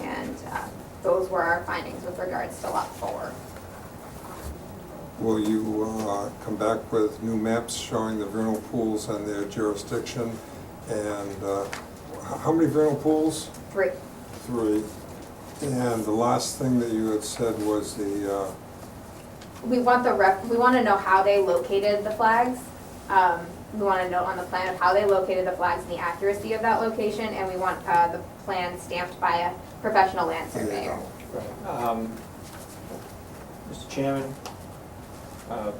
that. uh, Those were our findings with regards to lot four. Will you uh, come back with new maps showing the vernal pools and their jurisdiction? And uh, h- how many vernal pools? Three, Three. And the last thing that you had said was the, uh, we want the rep, we want to know how they located the flags. Um, We want to know on the plan of how they located the flags and the accuracy of that location, and we want uh, the plan stamped by a professional land there you surveyor. go. Um, Mr. Chairman, uh,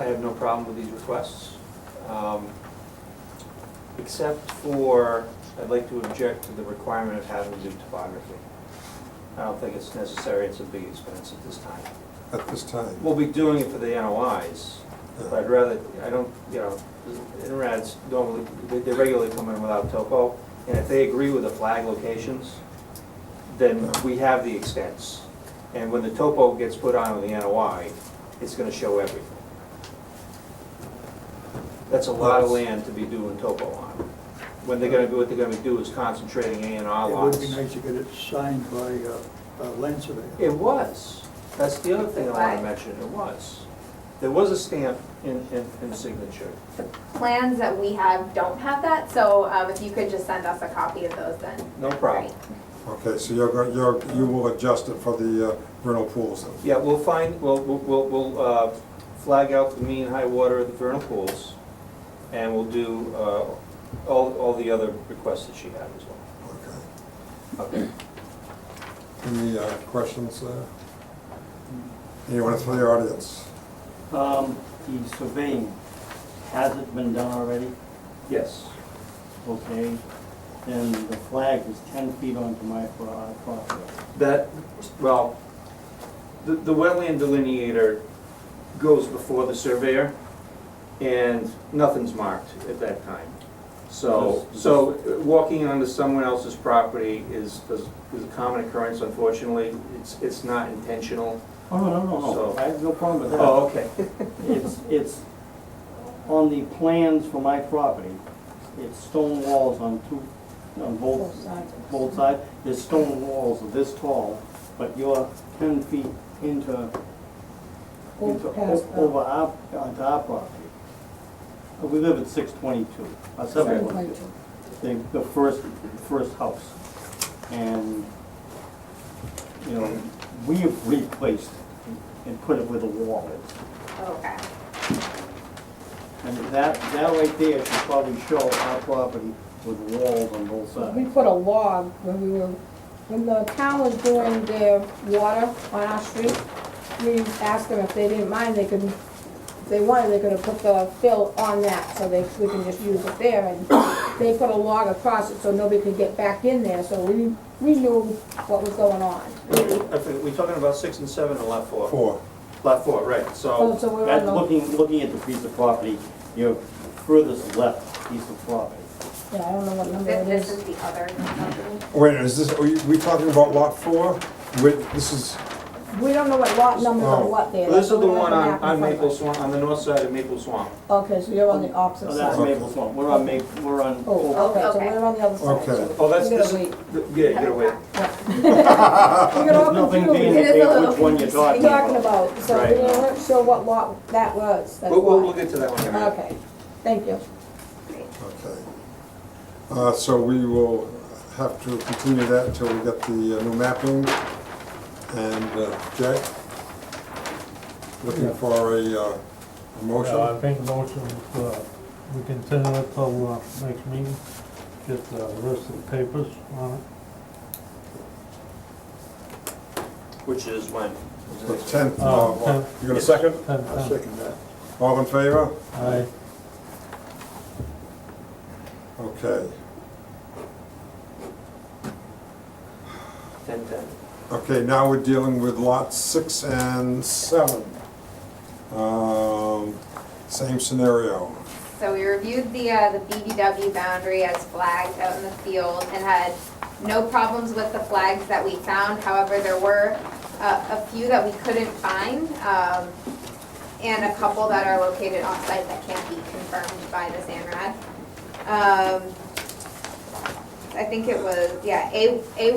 I have no problem with these requests, um, except for, I'd like to object to the requirement of having to do topography. I don't think it's necessary, it's a big expense at this time. uh, at this time. We'll be doing it for the NOIs, but I'd rather, I don't, you know, NRAD's normally, they- they regularly come in without topo, and if they agree with the flag locations, then we have the extents. And when the topo gets put on with the NOI, it's gonna show everything. That's a lot of land to be doing topo on. When they're gonna, do what they're gonna do is concentrating A and R It lots. would be nice to get it signed by uh, a land surveyor. It was. That's the other thing I want to mention, it was. There was a stamp in, in, in signature. The plans that we have don't have that, so um, if you could just send us a copy of those then. No problem. Okay, so you're, go- you're, you will adjust it for the uh, vernal pools then? Yeah, we'll find, we'll, we'll- we'll, we'll, uh, flag out the mean high water of the vernal pools, and we'll do, uh, all, all the other requests that she had as well. Okay. Okay. Any uh, questions there? Anyone from the audience? Um, the surveying, has it been done already? Yes. Okay, then the flag is ten feet onto my pro- uh, property. That, well, the, the wetland delineator goes before the surveyor, and nothing's marked at that time. So, Does- so walking onto someone else's property is, is is a common occurrence, unfortunately. It's, it's not intentional. Oh, no, no, no, So- no, I have no problem with that. Oh, okay. It's, it's on the plans for my property, it's stone walls on two, on both, both sides. There's stone walls this tall, but you're ten feet into, into, past o- over our, onto our property. Uh, We live at six twenty-two, uh, seven twenty-two, the, the first, first house. And, you know, we have replaced and put it where the wall is. Okay. And that, that right there should probably show our property with walls on both We sides. put a log when we were, when the town was doing their water on our street, we asked them if they didn't mind, they could, if they wanted, they could have put the fill on that, so they, we can just use it there, and they put a log across it so nobody could get back in there, so we, we knew what was going on. I think We're talking about six and seven and lot four. Four. Lot four, right, So so, so we were on That's the- looking, looking at the piece of property, your furthest left piece of property. yeah, I don't know what number This it this is. is the other company. Wait, is this, are you- we talking about lot four? Wait, this is, We don't know what lot numbers Oh. or what there. this is the We don't one have on, map in on front of Maple Oh, us. Swamp, on the north side of Maple Swamp. Okay, so you're on the opposite So Oh, that's side. Maple Swamp, we're on Ma, we're on, Oh, okay, so Okay. we're on the other side. Okay. so Oh, that's, we gotta this is, wait. yeah, get away. We got all there's nothing being It is a confused. indicated little which one you're What talking are you talking about. about, so we Right. weren't sure what lot that was, that's We'll, we'll we'll why. get to that one in a minute. Okay, thank you. okay. Uh, So we will have to continue that until we get the uh, new mapping. And uh, Jack, looking for a uh, a Yeah, I motion? think motion, uh, we continue it till, uh, next meeting, get the rest of the papers on it. Which is when? The 10th, Uh, of- tenth. you got a second? Ten, I'll ten. second that. All in favor? Aye. Okay. Ten, ten. Okay, now we're dealing with lots six and seven. Um, Same scenario. So we reviewed the, uh, the BBW boundary as flagged out in the field and had no problems with the flags that we found. However, there were, uh, a few that we couldn't find, um, and a couple that are located off-site that can't be confirmed by the SANRAD. Um, I think it was, yeah, A, A